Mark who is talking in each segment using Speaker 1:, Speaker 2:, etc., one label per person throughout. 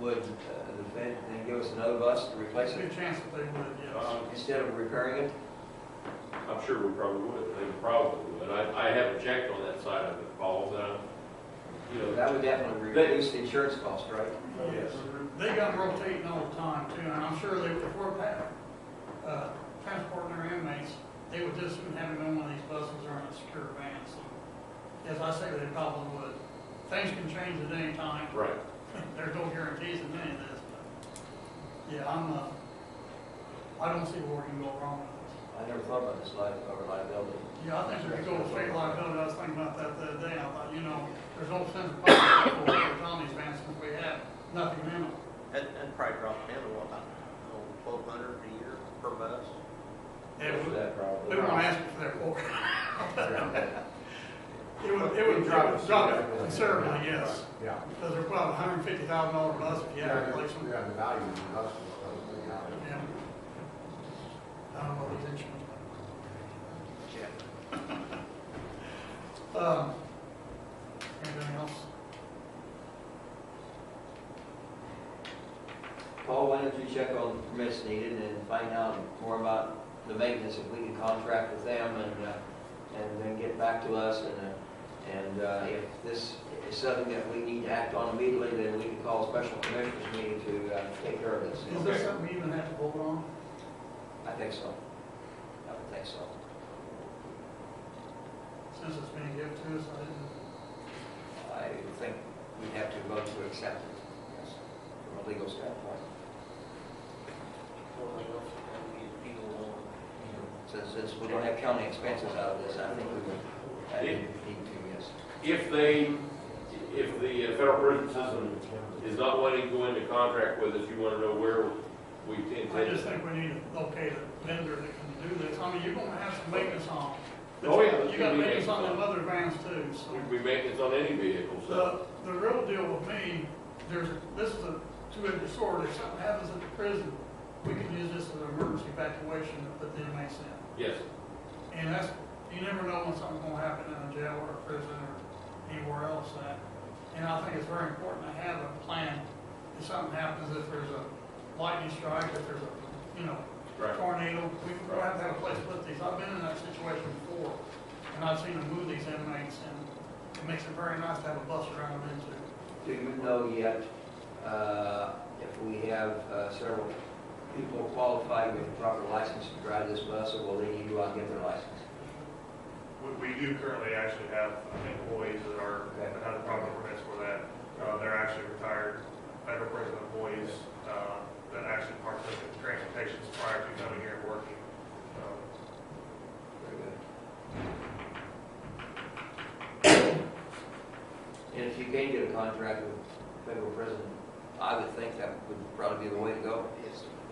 Speaker 1: would uh, the Fed then give us another bus to replace
Speaker 2: There's a
Speaker 1: it
Speaker 2: good chance that they would, yes.
Speaker 3: Um,
Speaker 1: instead of repairing it?
Speaker 3: I'm sure we probably would, they probably would. I, I haven't checked on that side of it, Paul, but, I'm- you know,
Speaker 1: That would definitely reduce the insurance cost, right?
Speaker 2: Yes. They got rotating all the time too, and I'm sure they, if we're pa- uh, transporting their inmates, they would just have them in one of these buses or in a secure van, so. As I say, they probably would. Things can change at any time.
Speaker 3: right.
Speaker 2: There's no guarantees in any of this, but, yeah, I'm, uh, I don't see where we can go wrong with this.
Speaker 1: I never thought about this life, or liability.
Speaker 2: Yeah, I think if you go with state liability, I was thinking about that the other day, I thought, you know, there's no sense of public liability on these vans since we have nothing in them.
Speaker 4: That, that probably dropped down to what, about twelve hundred a year per bus?
Speaker 2: It would,
Speaker 1: That probably.
Speaker 2: we won't ask you for their quote. It would, it would drop, drop it considerably, yes,
Speaker 5: Yeah.
Speaker 2: because they're about hundred and fifty thousand dollar bus if you had to replace them.
Speaker 5: Yeah, the value of the bus is probably out of
Speaker 2: Yeah. I don't know what these insurance.
Speaker 4: Yeah.
Speaker 2: Um, anything else?
Speaker 1: Paul, why don't you check on the permits needed and find out more about the maintenance, if we can contract with them and, uh, and then get back to us and, uh, and, uh, if this is something that we need to act on immediately, then we can call a special commissioners meeting to, uh, take care of this.
Speaker 2: Is this something we even have to vote on?
Speaker 1: I think so. I would think so.
Speaker 2: Since it's being given to us, I didn't,
Speaker 1: I think we'd have to vote to accept it, yes, from a legal standpoint.
Speaker 4: Well, they also have to get people along.
Speaker 1: Since, since we don't have county expenses out of this, I think we would, I think we need to, yes.
Speaker 3: If they, if the federal prison system is not wanting to go into contract with us, you want to know where we
Speaker 2: I just
Speaker 3: intend.
Speaker 2: think we need to locate a vendor that can do this, I mean, you're gonna have some maintenance on. them.
Speaker 3: Oh, yeah, there's
Speaker 2: You
Speaker 3: gonna
Speaker 2: got
Speaker 3: be
Speaker 2: maintenance on
Speaker 3: maintenance
Speaker 2: them other vans too, so.
Speaker 3: We make this on any vehicle, so.
Speaker 2: The, the real deal with me, there's, this is a two-edged sword, if something happens at the prison, we can use this as an emergency evacuation to put the inmates in.
Speaker 3: Yes,
Speaker 2: And that's, you never know when something's gonna happen in a jail or a prison or anywhere else that. And I think it's very important to have a plan, if something happens, if there's a lightning strike, if there's a, you know,
Speaker 3: right.
Speaker 2: tornado, we we have to have a place to put these. I've been in that situation before, and I've seen them move these inmates, and it makes it very nice to have a bus around them into.
Speaker 1: Do you know yet, uh, if we have uh, several people qualified with proper license to drive this bus, or will they need to go out and get their license?
Speaker 6: We, we do currently actually have employees that are, that have proper permits for that. Uh, they're actually retired federal prison employees, uh, that actually partook in transportations prior to coming here and working. Um,
Speaker 1: Very good. And if you can get a contract with federal prison, I would think that would probably be the way to go.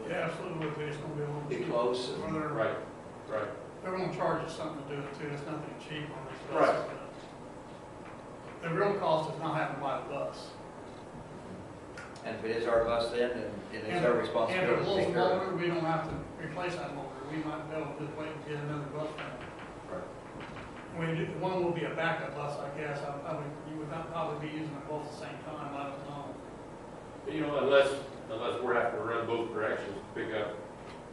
Speaker 2: Yeah, absolutely, but it's gonna be a little
Speaker 1: Be
Speaker 2: cheap.
Speaker 1: close and
Speaker 2: Or They're,
Speaker 3: Right, right.
Speaker 2: they're gonna charge us something to do it too, it's nothing cheap on these buses.
Speaker 3: Right.
Speaker 2: The real cost is not having to buy the bus.
Speaker 1: And if it is our bus then, then it is
Speaker 2: And-
Speaker 1: our responsibility
Speaker 2: And
Speaker 1: to
Speaker 2: if it
Speaker 1: take
Speaker 2: blows
Speaker 1: care of it.
Speaker 2: over, we don't have to replace that motor, we might be able to just wait and get another bus down.
Speaker 1: Right.
Speaker 2: We do, one will be a backup bus, I guess, I, I would, you would not probably be using them both at the same time, I don't know.
Speaker 3: You know, unless, unless we're having to run both directions, to pick up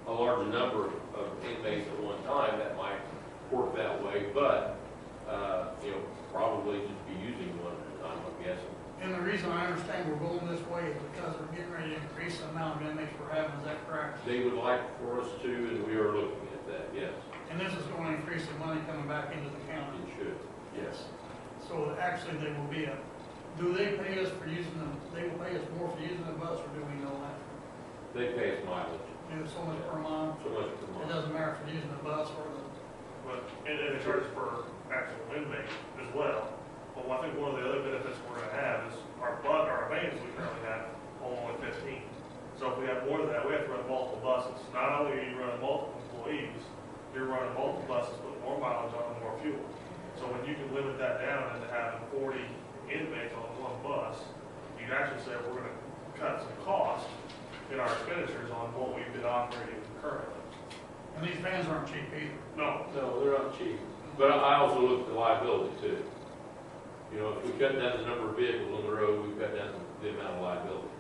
Speaker 3: a larger number of inmates at one time, that might work that way, but, uh, you know, probably just be using one at a time, I'm guessing.
Speaker 2: And the reason I understand we're going this way is because we're getting ready to increase the amount of inmates we're having, is that correct?
Speaker 3: They would like for us to, and we are looking at that, yes,
Speaker 2: And this is going to increase the money coming back into the county.
Speaker 3: it should, yes.
Speaker 2: So actually, they will be a, do they pay us for using them, they will pay us more for using the bus, or do we know that?
Speaker 3: They pay us mileage,
Speaker 2: Do it so much per mile,
Speaker 3: so much per
Speaker 2: it
Speaker 3: month.
Speaker 2: doesn't matter if we're using the bus or the,
Speaker 6: But, and, and it charges per actual inmate as well. But I think one of the other benefits we're gonna have is our bu, our vans we currently have only one fifteen. So if we have more than that, we have to run multiple buses. Not only are you running multiple employees, you're running multiple buses, with more mileage on and more fuel. So when you can limit that down into having forty inmates on one bus, you can actually say, we're gonna cut some cost in our expenditures on what we've been operating currently.
Speaker 2: and these vans aren't cheap either.
Speaker 6: No,
Speaker 3: No, they're not cheap, but I also look at the liability too. You know, if we cut down the number of vehicles on the road, we cut down the amount of liability.